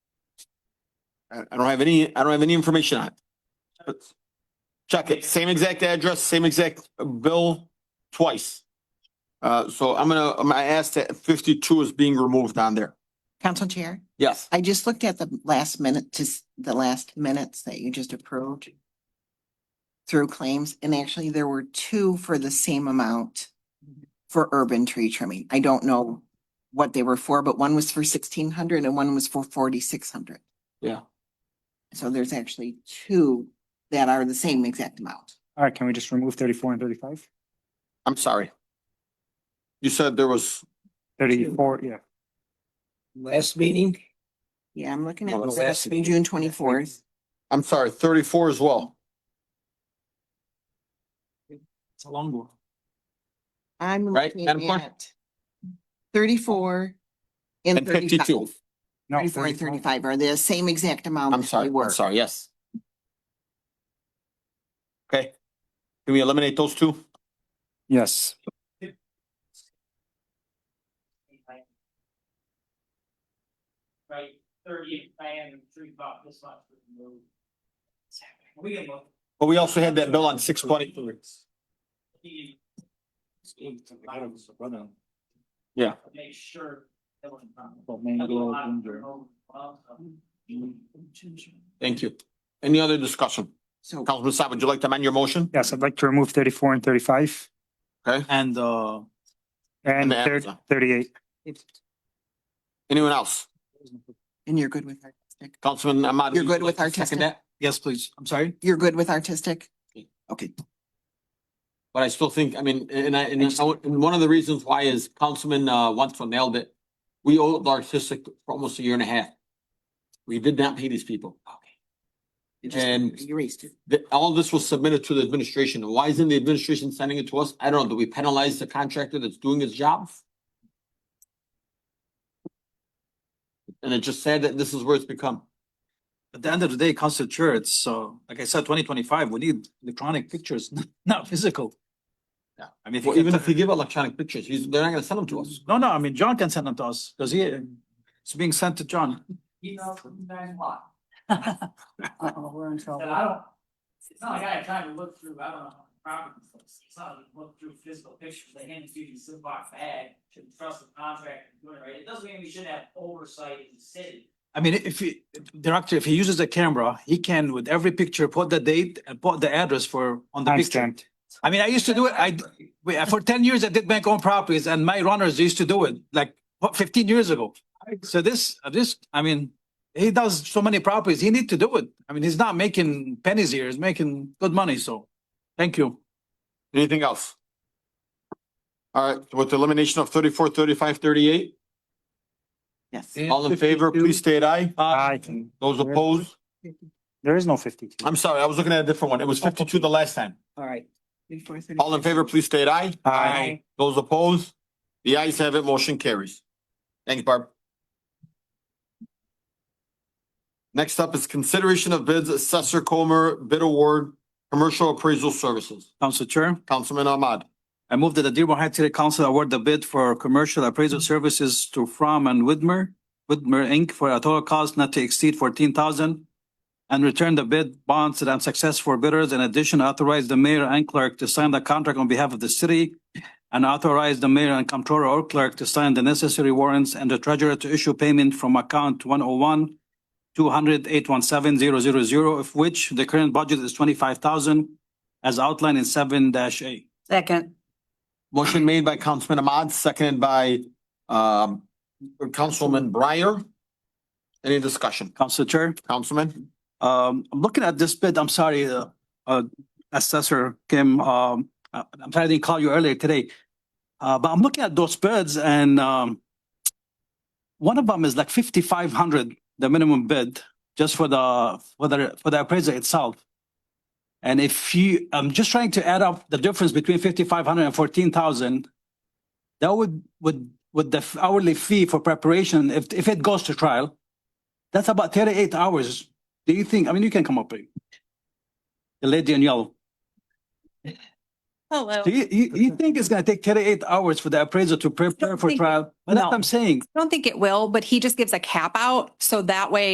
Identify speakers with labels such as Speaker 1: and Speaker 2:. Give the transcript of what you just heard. Speaker 1: I I don't have any, I don't have any information on it. But Check it, same exact address, same exact bill twice. Uh, so I'm gonna, I'm gonna ask that fifty-two is being removed on there.
Speaker 2: Council Chair,
Speaker 1: Yes.
Speaker 2: I just looked at the last minute to s- the last minutes that you just approved through claims, and actually there were two for the same amount for urban tree trimming. I don't know what they were for, but one was for sixteen hundred and one was for forty-six hundred.
Speaker 1: Yeah.
Speaker 2: So there's actually two that are the same exact amount.
Speaker 3: All right, can we just remove thirty-four and thirty-five?
Speaker 1: I'm sorry. You said there was,
Speaker 3: Thirty-four, yeah.
Speaker 4: Last meeting,
Speaker 2: Yeah, I'm looking at
Speaker 1: Well, the
Speaker 4: last-
Speaker 2: June twenty-fourth.
Speaker 1: I'm sorry, thirty-four as well.
Speaker 4: it's a long one.
Speaker 2: I'm
Speaker 1: Right,
Speaker 2: looking
Speaker 1: Madam Clerk?
Speaker 2: at thirty-four and
Speaker 1: And
Speaker 2: thirty-five.
Speaker 1: fifty-two.
Speaker 3: No,
Speaker 2: Thirty-four and
Speaker 3: 35.
Speaker 2: thirty-five are the same exact amount.
Speaker 1: I'm
Speaker 2: that
Speaker 1: sorry,
Speaker 2: they were.
Speaker 1: I'm sorry, yes. Okay. Can we eliminate those two?
Speaker 3: Yes,
Speaker 5: right, thirty plan and three buck, this much was moved. We can look.
Speaker 1: But we also had that bill on six twenty.
Speaker 5: He
Speaker 1: Yeah.
Speaker 5: Make sure. that was done.
Speaker 1: Thank you. Any other discussion?
Speaker 2: So,
Speaker 1: Councilman Saab, would you like to amend your motion?
Speaker 3: yes, I'd like to remove thirty-four and thirty-five
Speaker 4: And, uh,
Speaker 3: and
Speaker 1: And the
Speaker 3: thir-
Speaker 1: Amazon.
Speaker 3: thirty-eight.
Speaker 1: Anyone else?
Speaker 2: and you're good with artistic?
Speaker 1: Councilman Ahmad? would
Speaker 2: You're
Speaker 1: you
Speaker 2: good with
Speaker 1: like to second
Speaker 2: artistic?
Speaker 1: that?
Speaker 4: yes, please, I'm sorry.
Speaker 2: You're good with artistic? Okay,
Speaker 1: But I still think, I mean, and I, and I, would- and one of the reasons why is Councilman, uh, Wenzel nailed it. We owed the artistic for almost a year and a half. We did not pay these people.
Speaker 2: You just-
Speaker 1: And-
Speaker 2: you erased it.
Speaker 1: that all this was submitted to the administration. Why isn't the administration sending it to us? I don't know. Do we penalize the contractor that's doing his job? And it just said that this is where it's become.
Speaker 4: At the end of the day, council chair, it's, uh, like I said, twenty twenty-five, we need electronic pictures, not physical.
Speaker 1: Yeah.
Speaker 4: I mean.
Speaker 1: Well, even if you give electronic pictures, he's, they're not gonna send them to us.
Speaker 4: No, no, I mean, John can send them to us, because he, it's being sent to John.
Speaker 5: You know, you guys what?
Speaker 4: Uh-oh, we're in
Speaker 5: That I don't, it's not like I had time to look through, I don't know, properties, it's not like look through physical pictures, they hand it to you, you sit box bag, shouldn't trust the contractor, doing it right, it doesn't mean we shouldn't have oversight in the city.
Speaker 4: I mean, if he, director, if he uses a camera, he can with every picture put the date and put the address for, on the picture.
Speaker 3: Timestamped.
Speaker 4: I mean, I used to do it, I, we- for ten years, I did bank own properties and my runners used to do it, like, what, fifteen years ago? So this, this, I mean, he does so many properties, he need to do it. I mean, he's not making pennies here, he's making good money, so, thank you.
Speaker 1: Anything else? All right, with the elimination of thirty-four, thirty-five, thirty-eight,
Speaker 2: Yes.
Speaker 1: all in favor, please state aye.
Speaker 4: Uh,
Speaker 3: Aye.
Speaker 1: Those opposed?
Speaker 3: There is no fifty-two.
Speaker 1: I'm sorry, I was looking at a different one. It was fifty-two the last time.
Speaker 2: Oh, All right. Before thirty-
Speaker 1: All in favor, please state aye.
Speaker 3: Aye.
Speaker 1: Those opposed? The ayes have it, motion carries. Thanks, Barb. Next up is consideration of bids, Assessor Comer bid award, commercial appraisal services.
Speaker 4: Council Chair.
Speaker 1: Councilman Ahmad.
Speaker 4: I move that the Dearborn Heights City Council award the bid for commercial appraisal services to Fromm and Widmer, Widmer Inc. for a total cost not to exceed fourteen thousand and return the bid bonds to the unsuccessful bidders. In addition, authorize the mayor and clerk to sign the contract on behalf of the city and authorize the mayor and comptroller or clerk to sign the necessary warrants and the treasurer to issue payment from account one oh one two hundred eight one seven zero zero zero, of which the current budget is twenty-five thousand as outlined in seven dash A.
Speaker 6: Second,
Speaker 1: Motion made by Councilman Ahmad, seconded by um Councilman Breyer. Any discussion?
Speaker 4: Council Chair?
Speaker 1: Councilman?
Speaker 4: Um, I'm looking at this bid, I'm sorry, uh, uh, Assessor Kim, um, I- I'm sorry I didn't call you earlier today. Uh, but I'm looking at those bids and, um, one of them is like fifty-five hundred, the minimum bid, just for the, for the, for the appraiser itself. And if you, I'm just trying to add up the difference between fifty-five hundred and fourteen thousand. That would, would, with the hourly fee for preparation, if, if it goes to trial, that's about thirty-eight hours do you think, I mean, you can come up, babe. The lady in yellow.
Speaker 6: hello.
Speaker 4: Do you, you, you think it's gonna take thirty-eight hours for the appraiser to prepare for
Speaker 6: think-
Speaker 4: trial? But that's
Speaker 6: no.
Speaker 4: what I'm saying.
Speaker 6: I don't think it will, but he just gives a cap out. So that way